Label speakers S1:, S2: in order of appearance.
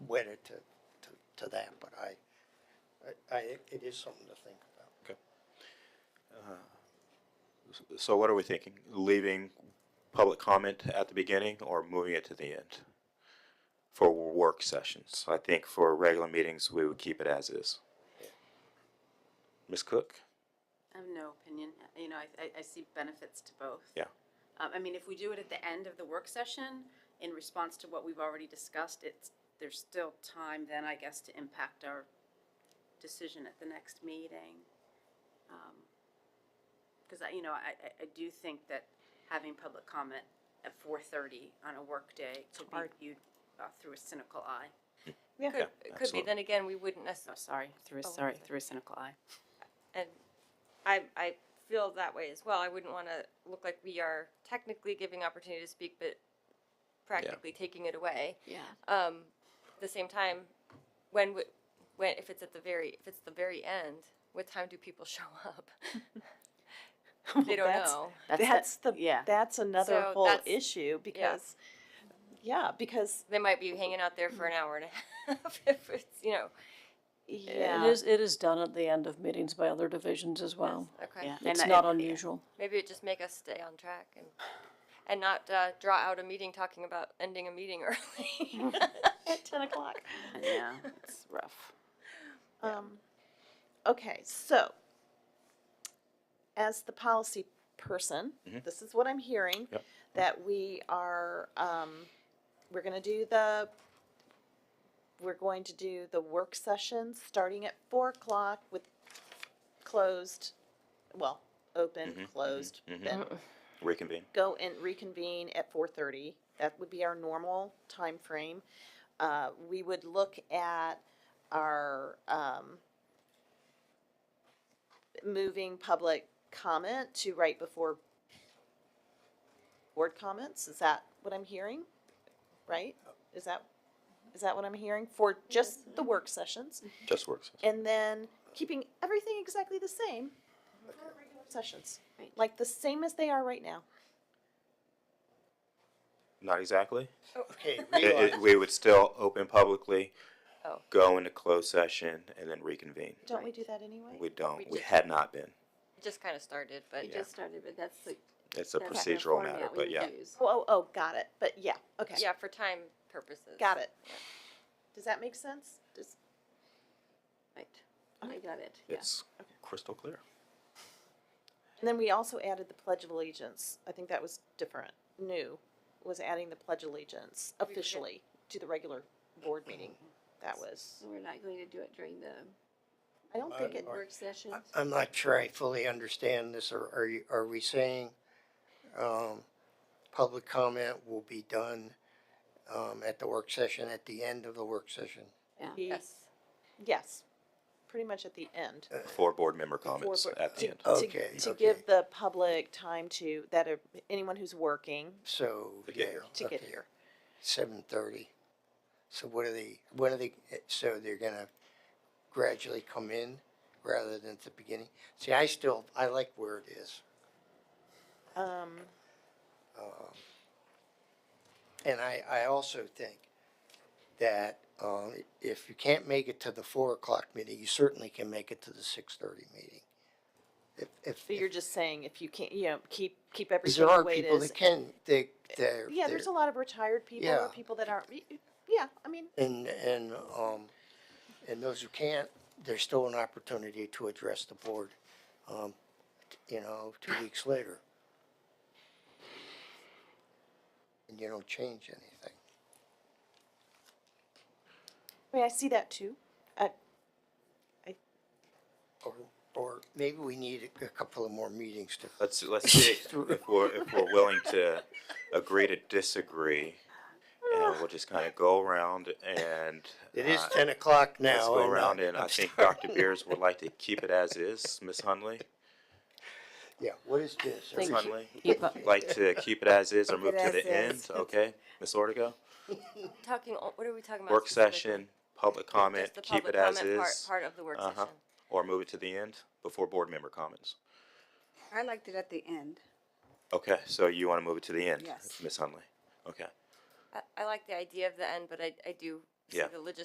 S1: wedded to, to, to that, but I, I, I, it is something to think about.
S2: Okay. Uh, s- So what are we thinking? Leaving public comment at the beginning or moving it to the end? For work sessions, I think for regular meetings, we would keep it as is. Ms. Cook?
S3: I have no opinion. You know, I, I, I see benefits to both.
S2: Yeah.
S3: Um, I mean, if we do it at the end of the work session, in response to what we've already discussed, it's, there's still time then, I guess, to impact our decision at the next meeting. Um, Cause I, you know, I, I, I do think that having public comment at four thirty on a work day could be
S4: Hard.
S3: viewed, uh, through a cynical eye.
S4: Could,
S2: Yeah,
S4: it could be.
S2: absolutely.
S4: Then again, we wouldn't
S3: Oh,
S4: necessarily,
S3: sorry, through a,
S4: Oh,
S3: sorry,
S4: okay.
S3: through a cynical eye.
S4: and I, I feel that way as well. I wouldn't want to look like we are technically giving opportunity to speak, but practically taking it away.
S3: Yeah.
S4: Um, at the same time, when, w- when, if it's at the very, if it's the very end, what time do people show up? They don't
S5: That's-
S4: know.
S5: That's the,
S3: yeah.
S5: that's another
S4: So
S5: whole
S4: that's-
S5: issue because, yeah, because,
S4: They might be hanging out there for an hour and a half if it's, you know.
S5: yeah.
S6: It is, it is done at the end of meetings by other divisions as well.
S4: Okay.
S3: Yeah. And
S6: It's
S3: I-
S6: not unusual.
S4: Maybe it just make us stay on track and, and not uh, draw out a meeting talking about ending a meeting early.
S5: At ten o'clock.
S3: Yeah, it's rough.
S5: Um, okay, so as the policy person,
S2: Mhm.
S5: this is what I'm hearing
S2: Yep.
S5: that we are um, we're going to do the we're going to do the work session starting at four o'clock with closed, well, open,
S2: Mhm,
S5: closed,
S2: mhm.
S5: then
S2: Reconvene.
S5: go and reconvene at four thirty. That would be our normal time frame. Uh, we would look at our, um, moving public comment to right before board comments. Is that what I'm hearing? Right? Is that, is that what I'm hearing for just the work sessions?
S2: Just works.
S5: And then keeping everything exactly the same for regular sessions,
S3: Right.
S5: like the same as they are right now.
S2: Not exactly.
S1: Okay,
S2: It- it-
S1: realize,
S2: we would still open publicly,
S4: Oh.
S2: go into closed session and then reconvene.
S5: Don't we do that anyway?
S2: We
S4: We
S2: don't, we
S4: just-
S2: had not been.
S4: It just kind of started, but
S3: It just started, but that's the.
S2: It's a
S3: that's the
S2: procedural
S3: format
S2: matter,
S3: we
S2: but yeah.
S3: use.
S5: Oh, oh, oh, got it. But yeah, okay.
S4: yeah, for time purposes.
S5: Got it. Does that make sense? Does,
S3: Right, I got it, yeah.
S2: It's crystal clear.
S5: and then we also added the Pledge of Allegiance. I think that was different, new, was adding the Pledge of Allegiance
S4: forget-
S5: officially to the regular board meeting. That was,
S3: So we're not going to do it during the
S5: I don't think it,
S3: work sessions?
S1: I- I'm not sure I fully understand this, or are you, are we saying, um, public comment will be done, um, at the work session, at the end of the work session?
S5: he,
S4: Yes.
S5: yes, pretty much at the end.
S2: For board member comments
S5: board-
S2: at the end.
S5: To-
S1: Okay,
S5: To
S1: okay.
S5: give the public time to, that, are- anyone who's working,
S1: So,
S2: To get
S1: yeah,
S2: here.
S5: To get
S1: okay.
S5: here.
S1: Seven thirty. So what are they, what are they, so they're gonna gradually come in rather than at the beginning? See, I still, I like where it is.
S5: um,
S1: Um, And I, I also think that, um, if you can't make it to the four o'clock meeting, you certainly can make it to the six thirty meeting. If, if,
S5: so you're
S1: if-
S5: just saying if you can't, you know, keep, keep everything
S1: there
S5: the
S1: are
S5: way it
S1: people
S5: is
S1: that can, they, they're.
S5: Yeah, there's
S1: they're-
S5: a lot of retired people or
S1: Yeah.
S5: people that aren't. y- y- Yeah, I mean,
S1: And, and, um, and those who can't, there's still an opportunity to address the board, um, t- you know, two weeks later. And you don't change anything.
S5: I mean, I see that too.
S1: Or, or maybe we need a couple of more meetings to,
S2: Let's, let's see if we're, if we're willing to agree to disagree. And we'll just kind of go around and.
S1: it is
S2: uh,
S1: ten o'clock now.
S2: Let's go
S1: and, uh,
S2: around and I
S1: I'm
S2: think
S1: sorry.
S2: Dr. Beers would like to keep it as is. Ms. Hunley,
S1: Yeah, what is this?
S2: Ms.
S6: Thank you.
S2: Hunley,
S6: Keep up.
S2: like to keep it as is or move to
S3: it
S2: the
S3: as
S2: end,
S3: is.
S2: okay? Ms. Ortega,
S4: Talking, o- what are we talking about?
S2: work
S4: specifically?
S2: session, public comment,
S4: Just the
S2: keep
S4: public
S2: it as
S4: comment part-
S2: is.
S4: Part of the work
S2: Uh-huh.
S4: session.
S2: Or move it to the end before board member comments.
S7: I liked it at the end.
S2: Okay, so you want to move it to the end?
S7: Yes.
S2: Ms. Hunley, okay.
S4: I, I like the idea of the end, but I, I do see
S2: Yeah.
S4: the logistics